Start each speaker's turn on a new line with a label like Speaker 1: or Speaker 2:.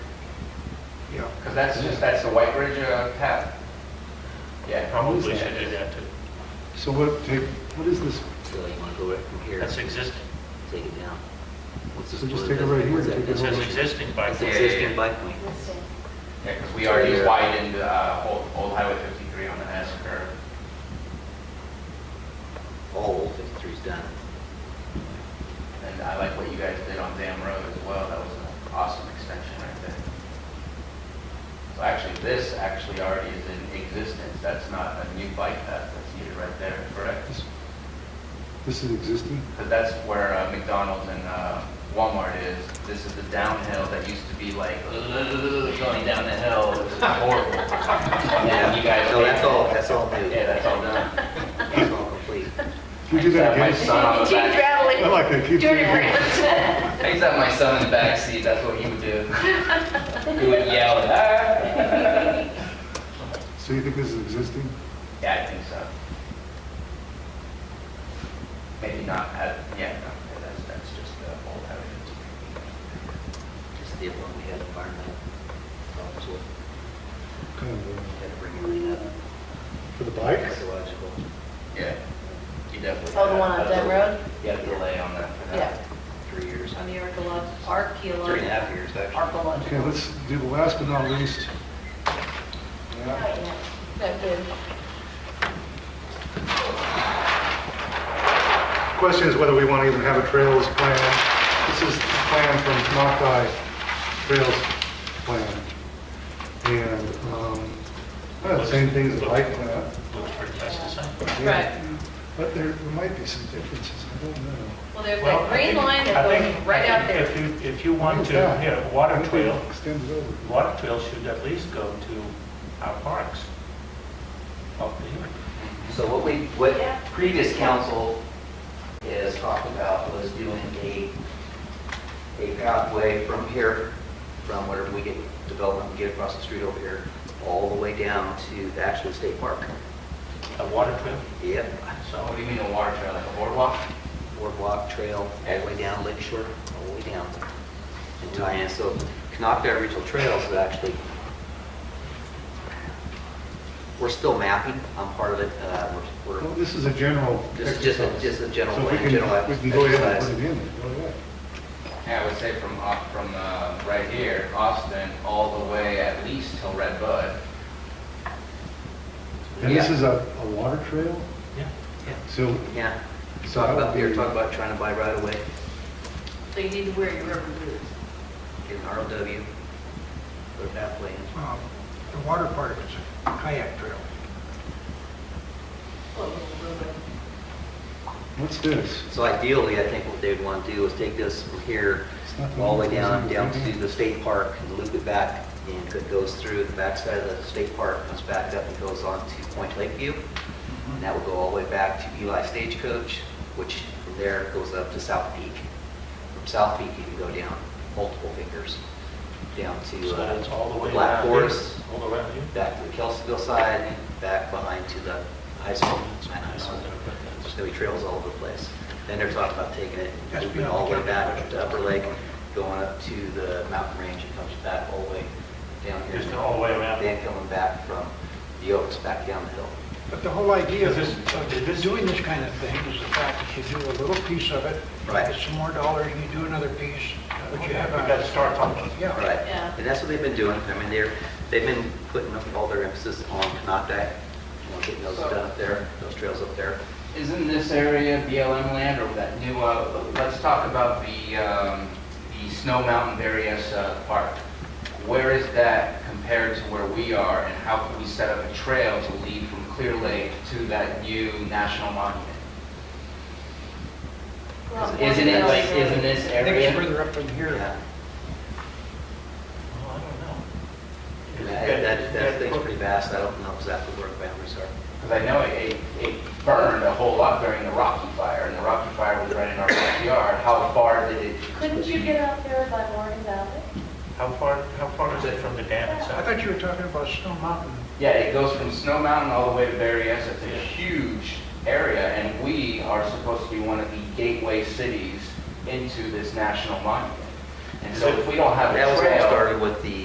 Speaker 1: Yeah.
Speaker 2: Because that's just, that's the White Ridge uh, path. Yeah.
Speaker 3: Probably should do that too.
Speaker 1: So what, take- what is this?
Speaker 4: So you want to go right from here,
Speaker 3: That's existing.
Speaker 4: take it down. What's this-
Speaker 1: So just
Speaker 4: what
Speaker 1: take it
Speaker 4: is
Speaker 1: right
Speaker 4: that?
Speaker 1: here,
Speaker 4: What's that?
Speaker 1: take it
Speaker 3: It
Speaker 4: That's-
Speaker 3: says existing bike
Speaker 4: That's
Speaker 2: Yeah, yeah,
Speaker 3: lane.
Speaker 4: existing
Speaker 2: yeah.
Speaker 4: bike lane.
Speaker 2: Yeah, because we already widened uh, Old Old Highway 53 on the S curve.
Speaker 4: All old 53's done.
Speaker 2: And I like what you guys did on Dam Road as well. That was an awesome extension right there. So actually, this actually already is in existence. That's not a new bike path that's needed right there, correct?
Speaker 1: This- This is existing?
Speaker 2: Because that's where uh, McDonald's and uh, Walmart is. This is the downhill that used to be like, "Ugh, going down the hill, it was horrible. And you guys.
Speaker 4: So that's all, that's all new.
Speaker 2: Yeah, that's all done.
Speaker 4: It's all complete.
Speaker 1: Can you do that
Speaker 2: I
Speaker 1: again?
Speaker 2: just had my son on the
Speaker 5: Keep
Speaker 2: back,
Speaker 5: traveling.
Speaker 1: I like that, keep
Speaker 5: Turn
Speaker 1: doing
Speaker 5: around.
Speaker 2: I used to have my son in the back seat. that's what he would do. He would yell, ah.
Speaker 1: So you think this is existing?
Speaker 2: Yeah, I think so. Maybe not, uh, yeah, no, that's, that's just the old habit.
Speaker 4: Just the one we had environmental problems with.
Speaker 1: Kind of, uh,
Speaker 4: Had to bring everything up.
Speaker 1: For the bikes?
Speaker 4: Ecological.
Speaker 2: Yeah. You definitely.
Speaker 5: Oh, the one on Dam Road?
Speaker 2: Yeah, the delay on that. for that.
Speaker 5: Yeah.
Speaker 4: Three years,
Speaker 5: On the
Speaker 4: three and a
Speaker 5: archaeological.
Speaker 4: half years actually.
Speaker 1: Okay,
Speaker 5: Archaeological.
Speaker 1: let's do the last but not least. Yeah.
Speaker 5: Not good.
Speaker 1: Question is whether we want to even have a trails plan. This is the plan from Nocti Trails Plan. And, um, kind of the same thing as the bike plan.
Speaker 3: Looks pretty much the same.
Speaker 1: Yeah. But there there might be some differences, I don't know.
Speaker 5: Well, there's
Speaker 3: Well,
Speaker 5: that
Speaker 3: I
Speaker 5: green
Speaker 3: think-
Speaker 5: line
Speaker 3: I
Speaker 5: that
Speaker 3: think-
Speaker 5: goes
Speaker 3: I
Speaker 5: right out
Speaker 3: think
Speaker 5: there.
Speaker 3: If you, if you want to,
Speaker 1: Yeah.
Speaker 3: yeah, water
Speaker 1: Maybe
Speaker 3: trail,
Speaker 1: Extend it over.
Speaker 3: water trail should at least go to our parks. Oh, here.
Speaker 4: So what we, what previous council has talked about was doing a, a pathway from here, from wherever we get development, we get across the street over here, all the way down to the actual state park.
Speaker 3: a water trail,
Speaker 4: Yip,
Speaker 2: So what do you mean a water trail, like a boardwalk?
Speaker 4: boardwalk, trail, all the way down Lake Shore, all the way down. And tie in, so Canoctown Regional Trails is actually, we're still mapping, I'm part of it, uh, we're,
Speaker 1: Well,
Speaker 4: we're
Speaker 1: This is a general
Speaker 4: Just, just, a-
Speaker 1: exercise.
Speaker 4: just a general
Speaker 1: So if we
Speaker 4: plan,
Speaker 1: can-
Speaker 4: general
Speaker 1: We can go ahead and
Speaker 4: exercise.
Speaker 1: put it in, Oh, go ahead.
Speaker 2: Yeah, I would say from, Au- from, uh, right here, Austin, all the way at least till Red Bud.
Speaker 1: And this
Speaker 2: Yeah.
Speaker 1: is a, a water trail?
Speaker 3: yeah.
Speaker 1: So,
Speaker 4: Yeah,
Speaker 1: So
Speaker 4: talk
Speaker 1: that
Speaker 4: about,
Speaker 1: would
Speaker 4: we were
Speaker 1: be-
Speaker 4: talking about trying to buy right away,
Speaker 5: So you need to wear your rubber boots.
Speaker 4: get an ROW, put a pathway in.
Speaker 6: Um, The water part of it's a kayak trail.
Speaker 5: Well, Oh, little rubber.
Speaker 1: what's this?
Speaker 4: So ideally, I think what they'd want to do is take this from here,
Speaker 1: It's not the
Speaker 4: all the
Speaker 1: one
Speaker 4: way down,
Speaker 1: that's in
Speaker 4: down
Speaker 1: the
Speaker 4: to
Speaker 1: beginning.
Speaker 4: the state park, and loop it back, and it goes through the backside of the state park, comes back up and goes on to Point Lakeview. And that will go all the way back to Eli Stagecoach, which from there goes up to South Peak. From South Peak, you can go down multiple fingers, down to
Speaker 3: So that's all the
Speaker 4: uh,
Speaker 3: way
Speaker 4: Black
Speaker 3: around here,
Speaker 4: Forest,
Speaker 3: all the way around here.
Speaker 4: back to the Kelseyville side, back behind to the high school, China High School. There's gonna be trails all over the place. Then they're talking about taking it,
Speaker 6: That's
Speaker 4: moving all the way back to Upper Lake, going up to the mountain range, and comes back all the way down here.
Speaker 3: Just all the way around.
Speaker 4: Then coming back from the Oaks back down the hill.
Speaker 6: But the whole idea of
Speaker 3: Is this-
Speaker 6: of doing this kind of thing is the fact that you do a little piece of it,
Speaker 4: Right.
Speaker 6: it's some more dollar, you do another piece, uh, but you have
Speaker 3: We gotta
Speaker 6: a,
Speaker 3: start talking.
Speaker 6: yeah.
Speaker 4: Right,
Speaker 5: Yeah.
Speaker 4: and that's what they've been doing. I mean, they're, they've been putting up all their emphasis on Canada, you know, getting those done up there, those trails up there.
Speaker 2: Isn't this area BLM land or that new, uh, let's talk about the, um, the Snow Mountain Various uh, Park. Where is that compared to where we are and how can we set up a trail to lead from Clear Lake to that new national monument? Isn't it like, isn't this
Speaker 6: I think it's
Speaker 2: area?
Speaker 6: further up from here.
Speaker 4: Yeah,
Speaker 3: Well, I don't know.
Speaker 4: and that, that- that thing's pretty vast. I don't know exactly where the boundaries are.
Speaker 2: Because I know it, it- it burned a whole lot during the Rocky Fire and the Rocky Fire was right in our backyard. How far did it?
Speaker 7: Couldn't you get out there by Morgan Valley?
Speaker 3: How far, how far is it from the dam
Speaker 6: I
Speaker 3: itself?
Speaker 6: thought you were talking about Snow Mountain.
Speaker 2: Yeah, it goes from Snow Mountain all the way to Berryessa. It's a huge area, and we are supposed to be one of the gateway cities into this national monument. And so if we don't have
Speaker 4: That
Speaker 2: a
Speaker 4: was all
Speaker 2: trail,
Speaker 4: started with the